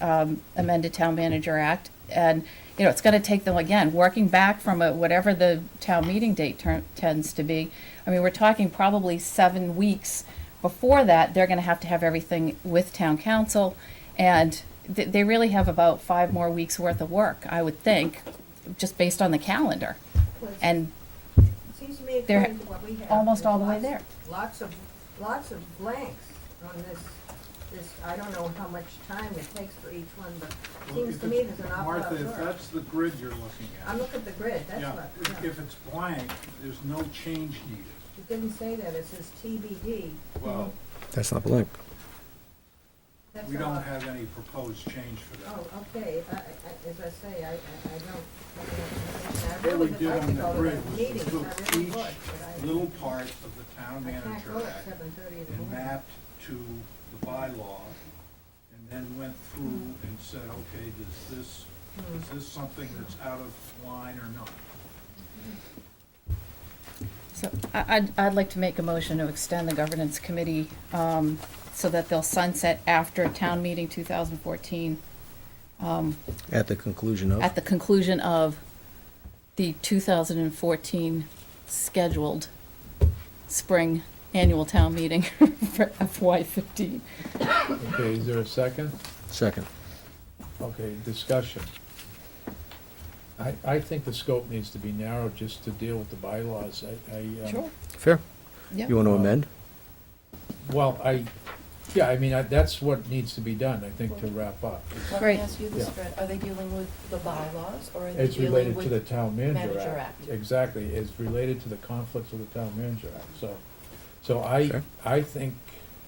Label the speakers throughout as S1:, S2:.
S1: um, amended Town Manager Act. And, you know, it's going to take them, again, working back from a- whatever the town meeting date turn- tends to be. I mean, we're talking probably seven weeks before that, they're going to have to have everything with town council. And th- they really have about five more weeks' worth of work, I would think, just based on the calendar.
S2: Well, it
S1: And
S2: Seems to me
S1: they're
S2: according to what we have.
S1: almost
S2: there's
S1: all the way
S2: lots-
S1: there.
S2: Lots of, lots of blanks on this, this, I don't know how much time it takes for each one, but it seems to me there's an awful lot
S3: Martha,
S2: of
S3: if
S2: work.
S3: that's the grid you're looking
S2: I'm
S3: at,
S2: looking at the grid, that's
S3: yeah,
S2: what,
S3: if-
S2: yeah.
S3: if it's blank, there's no change needed.
S2: It didn't say that, it says TBD.
S3: Well,
S4: That's not blank.
S2: Mm-hmm. That's
S3: we
S2: all.
S3: don't have any proposed change for that.
S2: Oh, okay, I, I, I- as I say, I, I I don't, I
S3: What
S2: really
S3: we
S2: would
S3: did
S2: like to
S3: on
S2: go
S3: the
S2: to
S3: grid
S2: those
S3: was
S2: meetings,
S3: we
S2: I
S3: took
S2: really would, but
S3: each
S2: I,
S3: little part of the town
S2: I can't
S3: manager
S2: go at
S3: act
S2: seven thirty in the
S3: and
S2: morning.
S3: mapped to the bylaw, and then went through and said, okay, does this,
S2: Hmm.
S3: is this something that's out of line or not?
S1: So I- I'd, I'd like to make a motion to extend the governance committee um, so that they'll sunset after town meeting 2014
S4: At the conclusion of?
S1: at the conclusion of the 2014 scheduled spring annual town meeting for FY15.
S5: Okay, is there a second?
S4: Second.
S5: Okay, discussion. I, I think the scope needs to be narrowed just to deal with the bylaws. I, I. um,
S4: Fair.
S1: Yeah.
S4: You want to amend?
S5: Well, I, yeah, I mean, I- that's what needs to be done, I think, to wrap up.
S6: Let me
S1: Great.
S6: ask you this,
S5: Yeah.
S6: Fred, are they dealing with the bylaws, or are they
S5: It's
S6: dealing
S5: related to the
S6: with?
S5: town manager
S6: Manager
S5: act.
S6: Act.
S5: Exactly, it's related to the conflicts of the town manager act, so, so I,
S4: Sure.
S5: I think,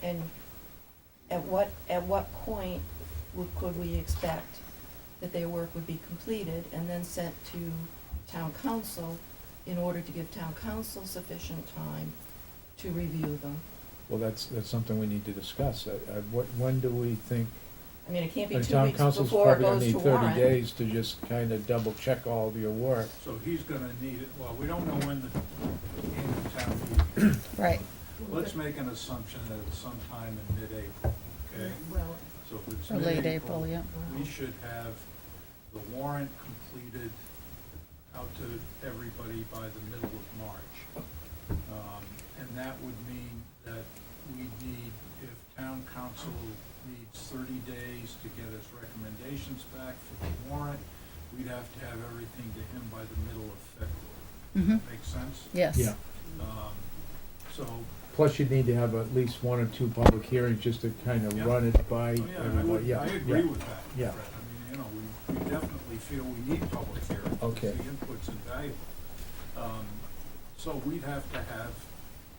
S6: And at what, at what point would, could we expect that their work would be completed and then sent to town council in order to give town council sufficient time to review them?
S5: well, that's, that's something we need to discuss. I, I, what, when do we think?
S6: I mean, it can't be
S5: and
S6: two
S5: town
S6: weeks
S5: council's
S6: before it
S5: probably gonna
S6: goes
S5: need
S6: to
S5: thirty
S6: warrant.
S5: days to just kinda double check all of your work.
S3: So he's gonna need it, well, we don't know when the annual town meeting is.
S1: Right.
S3: Let's make an assumption that it's sometime in mid-April, okay?
S2: Well,
S3: So if it's
S1: Or late April,
S3: mid-April,
S1: yeah.
S3: we should have the warrant completed out to everybody by the middle of March. Um, And that would mean that we need, if town council needs thirty days to get its recommendations back for the warrant, we'd have to have everything to him by the middle of February.
S1: Mhm.
S3: Make sense?
S1: Yes.
S3: Um, So
S5: Plus, you'd need to have at least one or two public hearings just to kind
S3: Yeah.
S5: of run it by
S3: Oh, Yeah, I
S5: everybody,
S3: would,
S5: yeah.
S3: I agree
S5: yeah.
S3: with that, Fred.
S5: Yeah.
S3: I mean, you know, we, we definitely feel we need public hearings.
S5: Okay.
S3: The input's invaluable. Um, so we'd have to have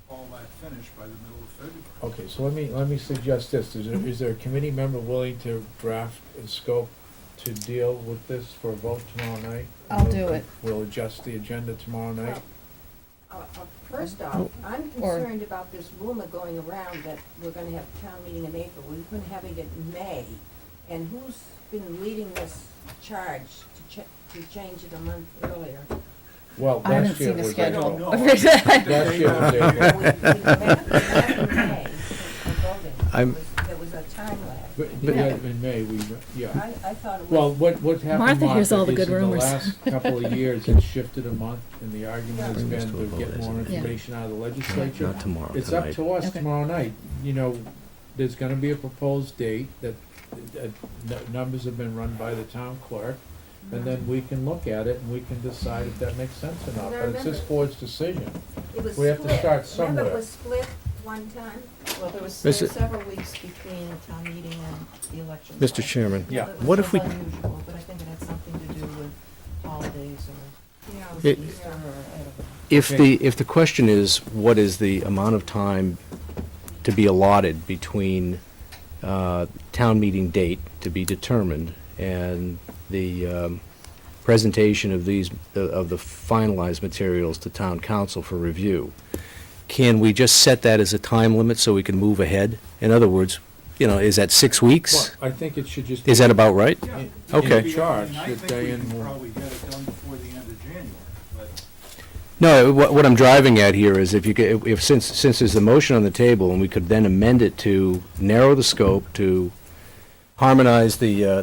S3: all that finished by the middle of February.
S5: Okay, so let me, let me suggest this, is there, is there a committee member willing to draft a scope to deal with this for a vote tomorrow night?
S1: I'll
S5: We'll-
S1: do it.
S5: We'll adjust the agenda tomorrow night.
S2: Uh, uh, First off, I'm
S1: Or-
S2: concerned about this rumor going around that we're gonna have a town meeting in April. We've been having it in May. And who's been leading this charge to cha- to change it a month earlier?
S5: Well,
S1: I haven't
S5: last year
S1: seen a
S5: was oh,
S3: I
S1: schedule.
S3: don't
S5: April.
S3: know.
S5: Last year was April.
S2: Well, we- we met- we met in May for voting. There
S4: I'm-
S2: was- There was a time lag.
S5: But, yeah, in May, we, yeah.
S2: I, I thought it
S5: Well,
S2: was,
S5: what, what happened,
S1: Martha hears all
S5: Martha,
S1: the
S5: is
S1: good
S5: in the
S1: rumors.
S5: last couple of years, it shifted a month, and the argument has
S4: Bring this
S5: been
S4: to a
S5: to
S4: vote,
S5: get
S4: isn't
S5: more
S4: it?
S1: Yeah.
S5: information out of the legislature.
S4: Not tomorrow,
S5: It's up
S4: tonight.
S5: to us
S1: Okay.
S5: tomorrow night, you know, there's gonna be a proposed date that, that n- numbers have been run by the town clerk, and then we can look at it and we can decide if that makes sense or not,
S2: And I
S5: but it's this
S2: remember-
S5: board's decision.
S2: it was split.
S5: we have to start
S2: Remember,
S5: somewhere.
S2: it was split one time?
S6: Well, there was there
S4: Mr.
S6: were several weeks between town meeting and the election.
S4: Mr.
S6: cycle.
S4: Chairman,
S5: Yeah.
S6: It
S4: what
S6: was
S4: if we,
S6: unusual, but I think it had something to do with holidays or
S2: Yeah.
S4: It-
S6: Easter or, I don't know.
S4: if the, if the question is, what is the amount of time to be allotted between uh, town meeting date to be determined and the um, presentation of these, uh, of the finalized materials to town council for review? Can we just set that as a time limit so we can move ahead? In other words, you know, is that six
S5: Well,
S4: weeks?
S5: I think it should just.
S4: Is that about right?
S3: Yeah.
S5: In-
S4: Okay.
S5: in charge
S3: I mean, I
S5: that
S3: think we
S5: Diane
S3: can
S5: will-
S3: probably get it done before the end of January, but
S4: No, what, what I'm driving at here is if you, ca- if, since, since there's a motion on the table, and we could then amend it to narrow the scope, to harmonize the, uh,